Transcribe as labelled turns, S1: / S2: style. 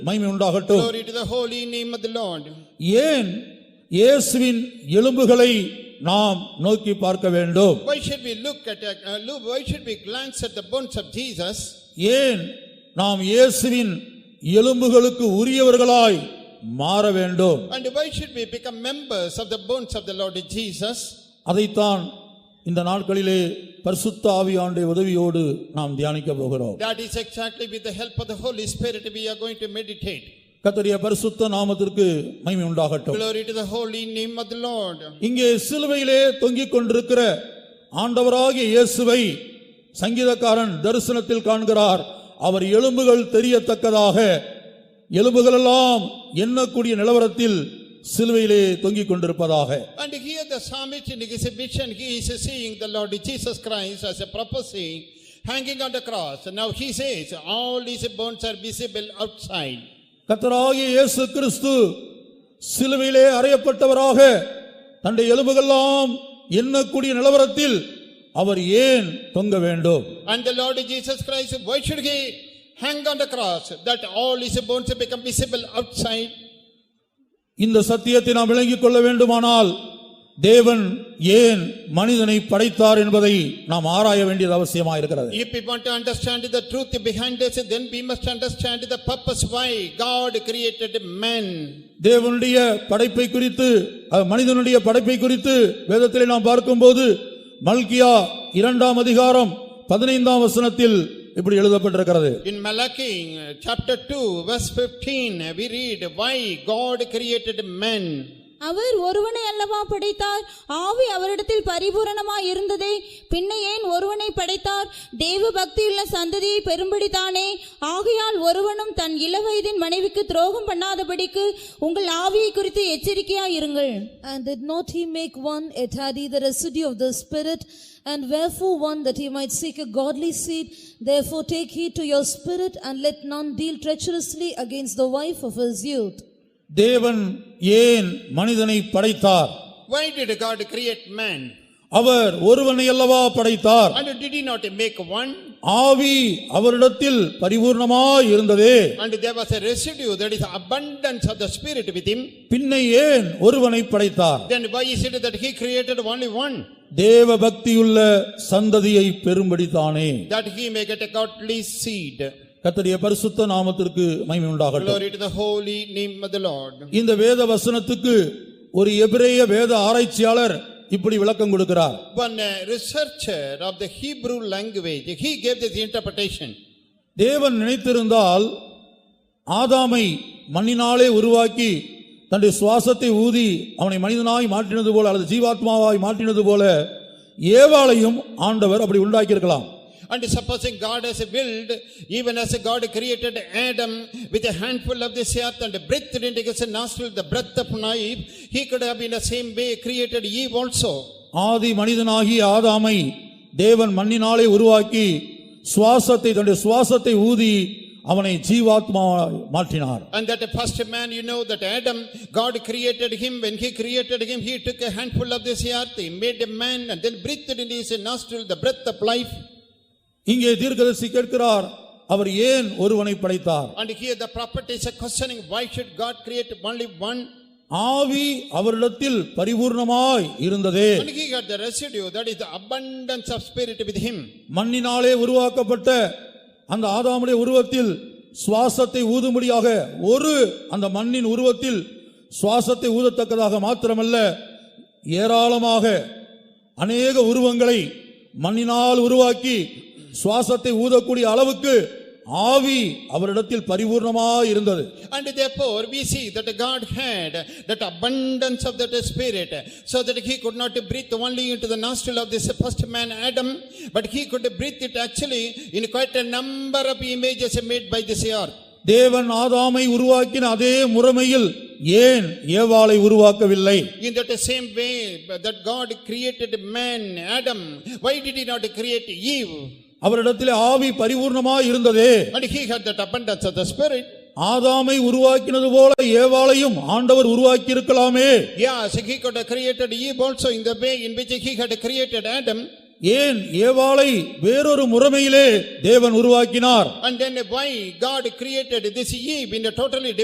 S1: மகிமை உண்டாகட்டும்
S2: Glory to the holy name of the Lord.
S1: ஏன் இயேசுவின் எலும்புகளை நாம் நோக்கி பார்க்க வேண்டும்
S2: Why should we look at, uh, look- why should we glance at the bones of Jesus?
S1: ஏன் நாம் இயேசுவின் எலும்புகளுக்கு உரியவர்களாய் மாற வேண்டும்
S2: And why should we become members of the bones of the Lord Jesus?
S1: அதைத்தான் இந்த நாட்களிலே பரிசுத்த ஆவியாண்டை உதவியோடு நாம் தியானிக்க போகிறோம்
S2: That is exactly with the help of the Holy Spirit we are going to meditate.
S1: கர்த்தருடைய பரிசுத்த நாமத்திற்கு மகிமை உண்டாகட்டும்
S2: Glory to the holy name of the Lord.
S1: இங்கே சிலுவையிலே தொங்கிக் கொண்டிருக்கிற ஆண்டவராகிய இயேசுவை சங்கீதக்காரன் தரிசனத்தில் காண்கிறார் அவர் எலும்புகள் தெரியத்தக்கதாக எலும்புகளெல்லாம் எண்ணக்கூடிய நிலவரத்தில் சிலுவையிலே தொங்கிக் கொண்டிருப்பதாக
S2: And here the psalmist in his vision, he is seeing the Lord Jesus Christ as a prophecy hanging on the cross. Now he says, all his bones are visible outside.
S1: கர்த்தராகிய இயேசு கிறிஸ்து சிலுவையிலே அறையப்பட்டவராக தன்னுடைய எலும்புகள்லாம் எண்ணக்கூடிய நிலவரத்தில் அவர் ஏன் தொங்க வேண்டும்
S2: And the Lord Jesus Christ, why should he hang on the cross that all his bones become visible outside?
S1: இந்த சத்தியத்தை நாம் விளங்கிக் கொள்ள வேண்டுமானால் தேவன் ஏன் மனிதனை படைத்தார் என்பதை நாம் ஆராய வேண்டியது அவசியமாயிருக்கிறது
S2: If we want to understand the truth behind us, then we must understand the purpose why God created man.
S1: தேவனுடைய படைப்பை குறித்து அஹ், மனிதனுடைய படைப்பை குறித்து வேதத்திலே நாம் பார்க்கும்போது மல்கியா இரண்டாம் அதிகாரம் பதினைந்தாம் வசனத்தில் இப்படி எழுதப்பட்டிருக்கிறது
S2: In Malachi uh, chapter 2, verse 15, we read why God created man.
S3: அவர் ஒருவனை அல்லவா படைத்தார் ஆவி அவரிடத்தில் பரிபூரணமாய் இருந்ததே பின்ன ஏன் ஒருவனை படைத்தார் தேவ பக்தியுள்ள சந்ததியை பெறும்படிதானே ஆகையால் ஒருவனும் தன் இளவயதின் மனைவிக்கு துரோகம் பண்ணாதபடிக்கு உங்கள் ஆவியை குறித்து எச்சரிக்கையாய் இருங்கள்
S4: And did not he make one a tardy the residue of the Spirit? And wherefore one that he might seek a godly seed? Therefore take heed to your spirit, and let none deal treacherously against the wife of his youth.
S1: தேவன் ஏன் மனிதனை படைத்தார்
S2: Why did God create man?
S1: அவர் ஒருவனை அல்லவா படைத்தார்
S2: And did he not make one?
S1: ஆவி அவரிடத்தில் பரிபூர்ணமாய் இருந்ததே
S2: And there was a residue, that is abundance of the spirit with him.
S1: பின்ன ஏன் ஒருவனை படைத்தார்
S2: Then why is it that he created only one?
S1: தேவ பக்தியுள்ள சந்ததியை பெறும்படி தானே
S2: That he may get a godly seed.
S1: கர்த்தருடைய பரிசுத்த நாமத்திற்கு மகிமை உண்டாகட்டும்
S2: Glory to the holy name of the Lord.
S1: இந்த வேத வசனத்துக்கு ஒரு எபிரேய வேத ஆராய்ச்சியாளர் இப்படி விளக்கம் கொடுக்கிறார்
S2: One uh, researcher of the Hebrew language, he gave this interpretation.
S1: தேவன் நினைத்திருந்தால் ஆதாமை மண்ணினாலே உருவாக்கி தன்னுடைய சுவாசத்தை ஊதி அவனை மனிதனாய் மாற்றினது போல அல்லது ஜீவாத்மாவாய் மாற்றினது போல ஏவாளையும் ஆண்டவர் அப்படி உண்டாக்கியிருக்கலாம்
S2: And supposing God has willed, even as God created Adam with a handful of this earth and breathed into his nostril the breath of life, he could have in the same way created Eve also.
S1: ஆதி மனிதனாகிய ஆதாமை தேவன் மண்ணினாலே உருவாக்கி சுவாசத்தை தன்னுடைய சுவாசத்தை ஊதி அவனை ஜீவாத்மாவாய் மாற்றினார்
S2: And that the first man, you know, that Adam, God created him. When he created him, he took a handful of this earth, he made a man, and then breathed in his nostril the breath of life.
S1: இங்கே தீர்க்கதரிசி கேட்கிறார் அவர் ஏன் ஒருவனை படைத்தார்
S2: And here the prophet is questioning why should God create only one?
S1: ஆவி அவரிடத்தில் பரிபூர்ணமாய் இருந்ததே
S2: And he had the residue, that is the abundance of spirit with him.
S1: மண்ணினாலே உருவாக்கப்பட்ட அந்த ஆதாமுடைய உருவத்தில் சுவாசத்தை ஊதும்படியாக ஒரு அந்த மண்ணின் உருவத்தில் சுவாசத்தை ஊதத்தக்கதாக மாத்திரமல்ல ஏராளமாக அநேக உருவங்களை மண்ணினால் உருவாக்கி சுவாசத்தை ஊதக்கூடிய அளவுக்கு ஆவி அவரிடத்தில் பரிபூர்ணமாய் இருந்தது
S2: And therefore, we see that God had that abundance of that spirit, so that he could not breathe only into the nostril of this first man Adam, but he could breathe it actually in quite a number of images made by this earth.
S1: தேவன் ஆதாமை உருவாக்கின அதே முறைமையில் ஏன் ஏவாளை உருவாக்கவில்லை
S2: In that same way that God created man, Adam, why did he not create Eve?
S1: அவரிடத்திலே ஆவி பரிபூர்ணமாய் இருந்ததே
S2: And he had that abundance of the spirit.
S1: ஆதாமை உருவாக்கினது போல ஏவாளையும் ஆண்டவர் உருவாக்கி இருக்கலாமே
S2: Yes, he could have created Eve also in the way in which he had created Adam.
S1: ஏன் ஏவாளை வேறொரு முறைமையிலே தேவன் உருவாக்கினார்
S2: And then why God created this Eve in a totally different